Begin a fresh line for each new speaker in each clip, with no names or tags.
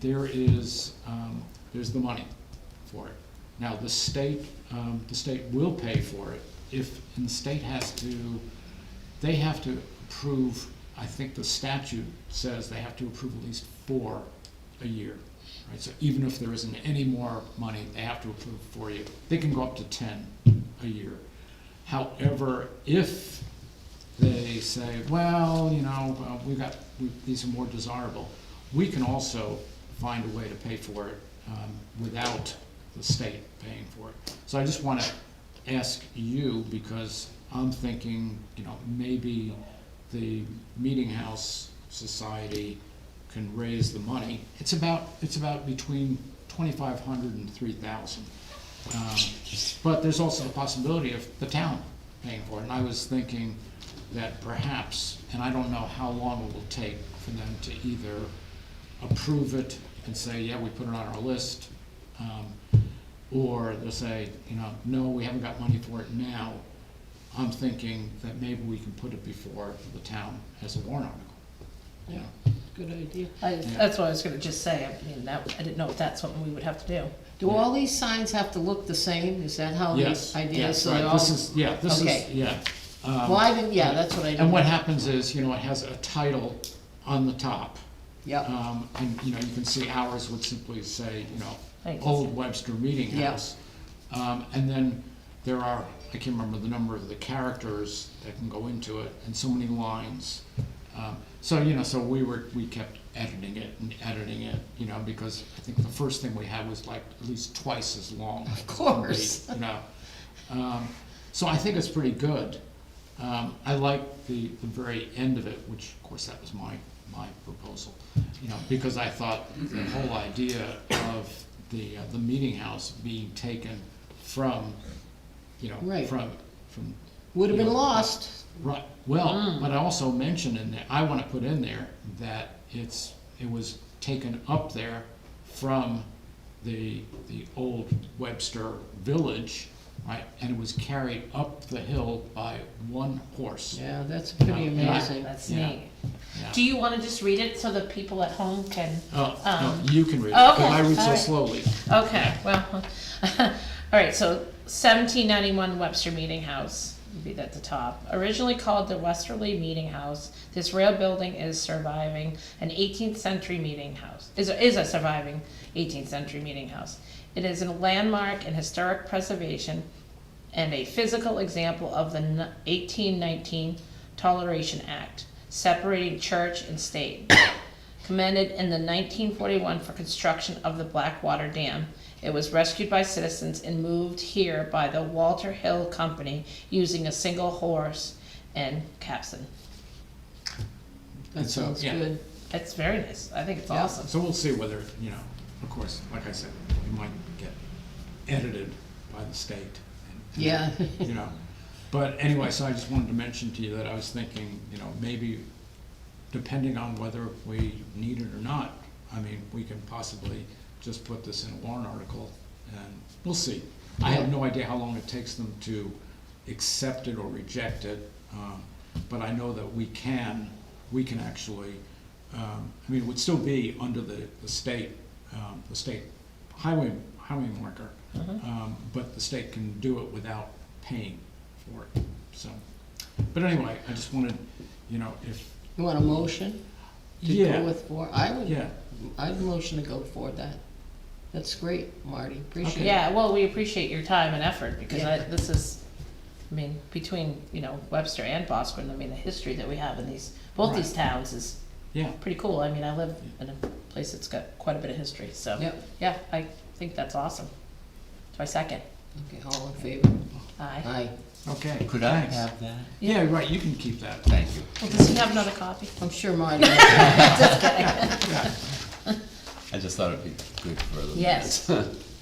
there is, um, there's the money for it. Now, the state, um, the state will pay for it if, and the state has to, they have to approve, I think the statute says they have to approve at least four a year. Right, so even if there isn't any more money, they have to approve for you. They can go up to ten a year. However, if they say, well, you know, uh, we've got, we- these are more desirable. We can also find a way to pay for it um, without the state paying for it. So I just want to ask you, because I'm thinking, you know, maybe the Meeting House Society can raise the money. It's about, it's about between twenty-five hundred and three thousand. Um, But there's also the possibility of the town paying for it, and I was thinking that perhaps, and I don't know how long it will take for them to either approve it and say, yeah, we put it on our list, um, or they'll say, you know, no, we haven't got money for it now. I'm thinking that maybe we can put it before the town as a warrant article.
Yeah, good idea.
I, that's what I was gonna just say, I mean, that, I didn't know if that's something we would have to do.
Do all these signs have to look the same? Is that how
Yes,
the idea
yes,
is? So they
right,
all,
this is, yeah, this is,
Okay.
yeah. Um,
well, I didn't, yeah, that's what I did.
And what happens is, you know, it has a title on the top.
Yep,
Um, and, you know, you can see ours would simply say, you know,
Thank you.
Old Webster Meeting
Yeah.
House. Um, and then there are, I can't remember the number of the characters that can go into it, and so many lines. Um, so, you know, so we were, we kept editing it and editing it, you know, because I think the first thing we had was like at least twice as long. Of
course.
You know, um, so I think it's pretty good. Um, I like the, the very end of it, which of course that was my, my proposal, you know, because I thought the whole idea of the, uh, the meeting house being taken from, you know,
Right.
from, from.
would have
you
been
know,
lost.
Right, well, but I also mentioned in there, I wanna put in there that it's, it was taken up there from the, the old Webster Village, right? And it was carried up the hill by one horse.
Yeah, that's pretty
Yeah.
amazing.
That's
Yeah.
neat.
Yeah.
Do you wanna just read it so the people at home can?
Oh,
Um,
no, you can read it,
okay,
cause I read so
alright.
slowly.
Okay, well, all right, so seventeen ninety-one Webster Meeting House would be at the top. Originally called the Westerly Meeting House, this rail building is surviving an eighteenth century meeting house, is, is a surviving eighteenth century meeting house. It is a landmark in historic preservation and a physical example of the eighteen nineteen Toleration Act, separating church and state commended in the 1941 for construction of the Blackwater Dam. It was rescued by citizens and moved here by the Walter Hill Company using a single horse and capstan.
That
And so,
sounds
yeah.
good.
It's very nice. I think it's
Yeah.
awesome.
So we'll see whether, you know, of course, like I said, it might get edited by the state. and- and,
Yeah.
You know, but anyway, so I just wanted to mention to you that I was thinking, you know, maybe depending on whether we need it or not, I mean, we can possibly just put this in a warrant article and we'll see. I have no idea how long it takes them to accept it or reject it, um, but I know that we can, we can actually, um, I mean, it would still be under the, the state, um, the state highway, highway marker.
Mm-hmm.
Um, but the state can do it without paying for it, so. But anyway, I just wanted, you know, if,
You want a motion to
yeah.
go with four? I would,
Yeah,
I'd motion to go for that. That's great, Marty, appreciate it.
Yeah, well, we appreciate your time and effort because I,
Yeah.
this is, I mean, between, you know, Webster and Bosquen, I mean, the history that we have in these, both these towns is
yeah,
pretty cool. I mean, I live in a place that's got quite a bit of history, so.
Yep,
Yeah, I think that's awesome. So I second.
okay, all in favor?
Aye.
Aye.
okay.
Could I
thanks.
have that?
Yeah, right, you can keep that.
Thank you.
Well, does he have another copy?
I'm sure Marty.
I just thought it'd be good for the.
Yes.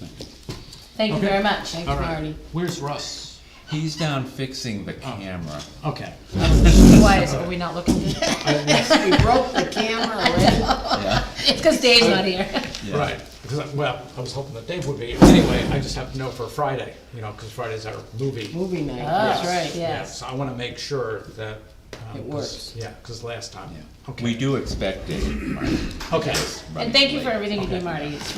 Thank you
Okay.
very much.
Thanks,
All right.
Marty.
Where's Russ?
He's down fixing the
Oh.
camera.
Okay.
Why is, are we not looking? It's
We broke the camera already.
Yeah,
because Dave's not here.
yeah.
Right, because, I- well, I was hoping that Dave would be, anyway, I just have to know for Friday, you know, because Friday's our movie.
Movie night,
Oh,
that's right.
Yes.
So I want to make sure that, Um,
It
'cause-
works.
Yeah, because last time,
Yeah.
okay.
We do expect it. Mark.
Okay.
Yes,
And
right,
thank you
right.
for everything you do,
Okay.
Marty. It's